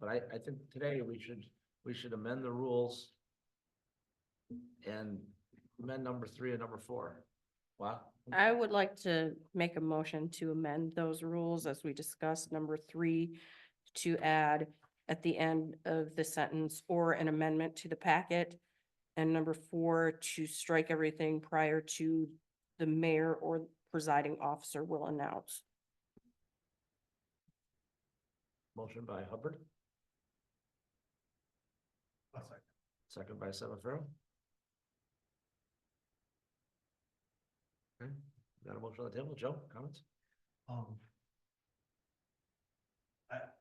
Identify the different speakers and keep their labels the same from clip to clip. Speaker 1: but I, I think today we should, we should amend the rules. And amend number three and number four. Wow.
Speaker 2: I would like to make a motion to amend those rules as we discussed, number three, to add at the end of the sentence or an amendment to the packet. And number four, to strike everything prior to the mayor or presiding officer will announce.
Speaker 1: Motion by Hubbard. Second by Savafaro. Okay, got a motion on the table. Joe, comments?
Speaker 3: Um. I.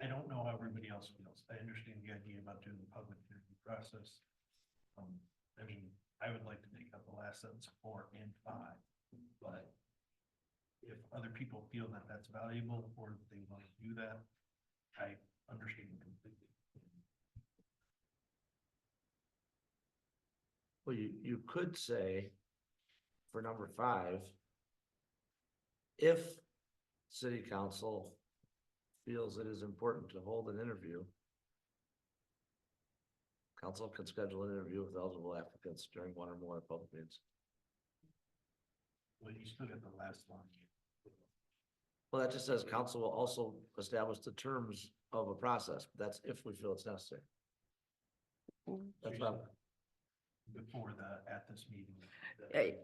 Speaker 3: I don't know how everybody else feels. I understand the idea about doing the public interview process. Um, I mean, I would like to take out the last sentence four and five, but. If other people feel that that's valuable or if they want to do that, I understand completely.
Speaker 1: Well, you, you could say for number five, if city council feels it is important to hold an interview, council can schedule an interview with eligible applicants during one or more public meetings.
Speaker 3: Well, you still got the last line.
Speaker 1: Well, that just says council will also establish the terms of a process. That's if we feel it's necessary.
Speaker 2: Uh,
Speaker 1: That's not,
Speaker 3: Before the, at this meeting. the-
Speaker 2: Hey.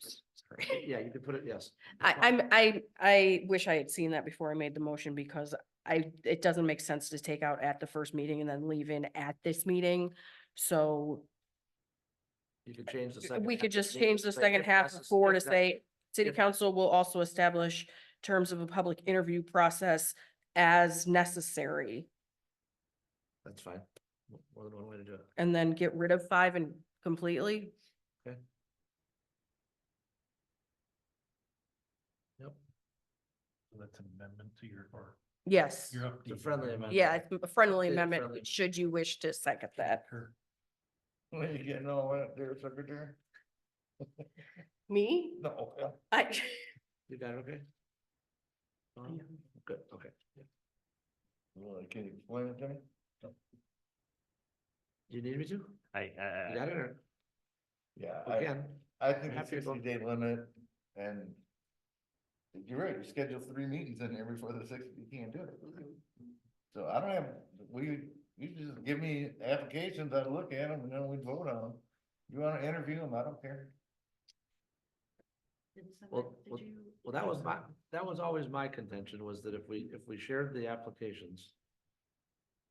Speaker 2: Sorry.
Speaker 1: yeah, you could put it, yes.
Speaker 2: I, I'm, I, I wish I had seen that before I made the motion because I, it doesn't make sense to take out at the first meeting and then leave in at this meeting. So
Speaker 1: You could change the second.
Speaker 2: we
Speaker 1: half
Speaker 2: could
Speaker 1: to
Speaker 2: just
Speaker 1: say-
Speaker 2: change the
Speaker 1: say
Speaker 2: second
Speaker 1: if
Speaker 2: half
Speaker 1: necess-
Speaker 2: of four to
Speaker 1: if necessary.
Speaker 2: say, city
Speaker 1: if-
Speaker 2: council will also establish terms of a public interview process as necessary.
Speaker 1: That's fine. More than one way to do it.
Speaker 2: And then get rid of five and completely.
Speaker 3: So That's an amendment to your, or
Speaker 2: Yes.
Speaker 3: your update.
Speaker 1: The friendly amendment.
Speaker 2: Yeah, it's a friendly
Speaker 1: Updated friendly
Speaker 2: amendment,
Speaker 1: amendment.
Speaker 2: should you wish to second that.
Speaker 3: Kurt.
Speaker 4: What are you getting all out there, secretary?
Speaker 2: Me?
Speaker 4: No.
Speaker 2: I.
Speaker 1: You got it, okay? Fine? Good, okay.
Speaker 4: Well, can you explain it to me?
Speaker 1: You need me to?
Speaker 5: I,
Speaker 1: You
Speaker 5: I,
Speaker 1: got it or
Speaker 4: Yeah, I,
Speaker 1: again?
Speaker 4: I think the
Speaker 1: Happy to go.
Speaker 4: sixty day limit and you're right, you schedule three meetings in there before the sixty, you can't do it. Mm-hmm. So I don't have, we, you just give me applications, I look at them and then we vote on them. You wanna interview them, I don't care.
Speaker 1: Well, well, well, that was
Speaker 4: uh,
Speaker 1: my, that was always my contention was that if we, if we shared the applications.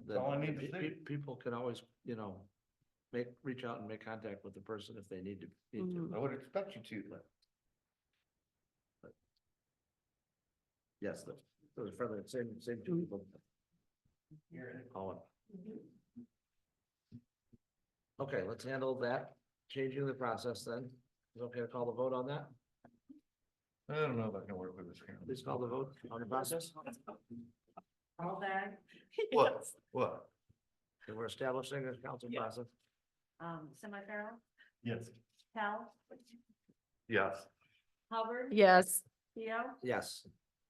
Speaker 4: That's all I
Speaker 1: then
Speaker 4: need to
Speaker 1: pe- pe-
Speaker 4: see.
Speaker 1: People can always, you know, make, reach out and make contact with the person if they need to. need to.
Speaker 2: Mhm.
Speaker 4: I would expect you to, but
Speaker 1: Yes, the, the friendly, same, same two people. Colin. Okay, let's handle that, changing the process then. Is it okay to call the vote on that?
Speaker 4: I don't know if I can work with this. kind
Speaker 1: Please call the vote on the process.
Speaker 6: All that,
Speaker 4: What, what?
Speaker 1: And we're establishing a council
Speaker 3: Yeah.
Speaker 1: process.
Speaker 6: um, semi-feral,
Speaker 4: Yes.
Speaker 6: Pell,
Speaker 4: Yes.
Speaker 6: Hubbard,
Speaker 2: Yes.
Speaker 6: Theo.
Speaker 1: Yes,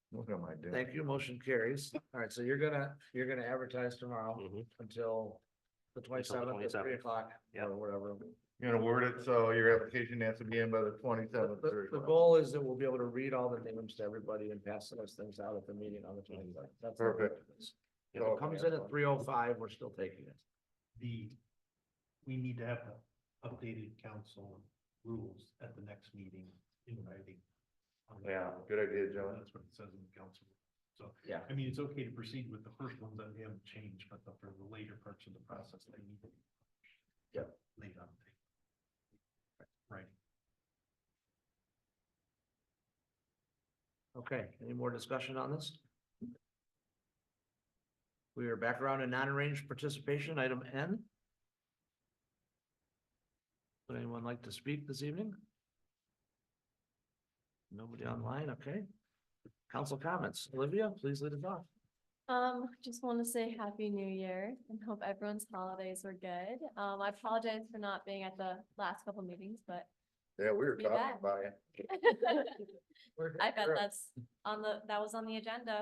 Speaker 4: What am I doing?
Speaker 1: thank you. Motion carries. All right, so you're gonna, you're gonna advertise tomorrow
Speaker 5: Mhm.
Speaker 1: until Mm-hmm. the twenty-seventh at
Speaker 5: 27th.
Speaker 1: three o'clock
Speaker 5: Yep.
Speaker 1: or whatever.
Speaker 4: You're gonna word it, so your application has to be in by the
Speaker 1: The,
Speaker 4: twenty-seventh.
Speaker 1: the- the goal is that we'll be able to read all the names to everybody and pass those things out at the meeting on the twenty-seventh.
Speaker 4: Perfect.
Speaker 1: If it comes in at three oh five, we're still taking it.
Speaker 3: the, we need to have the updated council rules at the next meeting in writing. Um,
Speaker 4: Yeah, good idea, John.
Speaker 3: That's what it says in the council. So,
Speaker 1: Yeah.
Speaker 3: I mean, it's okay to proceed with the first ones that we haven't changed, but the- for the later parts of the process, they need to. be
Speaker 1: Yeah.
Speaker 3: Laid on. the table. Right.
Speaker 1: Okay, any more discussion on this? We are back around to non-arranged participation, item N. Would anyone like to speak this evening? Nobody online, okay. Council comments, Olivia, please lead us off.
Speaker 7: Um, just want to say Happy New Year and hope everyone's holidays were good. Um, I apologize for not being at the last couple meetings, but
Speaker 4: Yeah, we were
Speaker 7: Be
Speaker 4: talking
Speaker 7: back.
Speaker 4: about it.
Speaker 7: I bet that's on the, that was on the agenda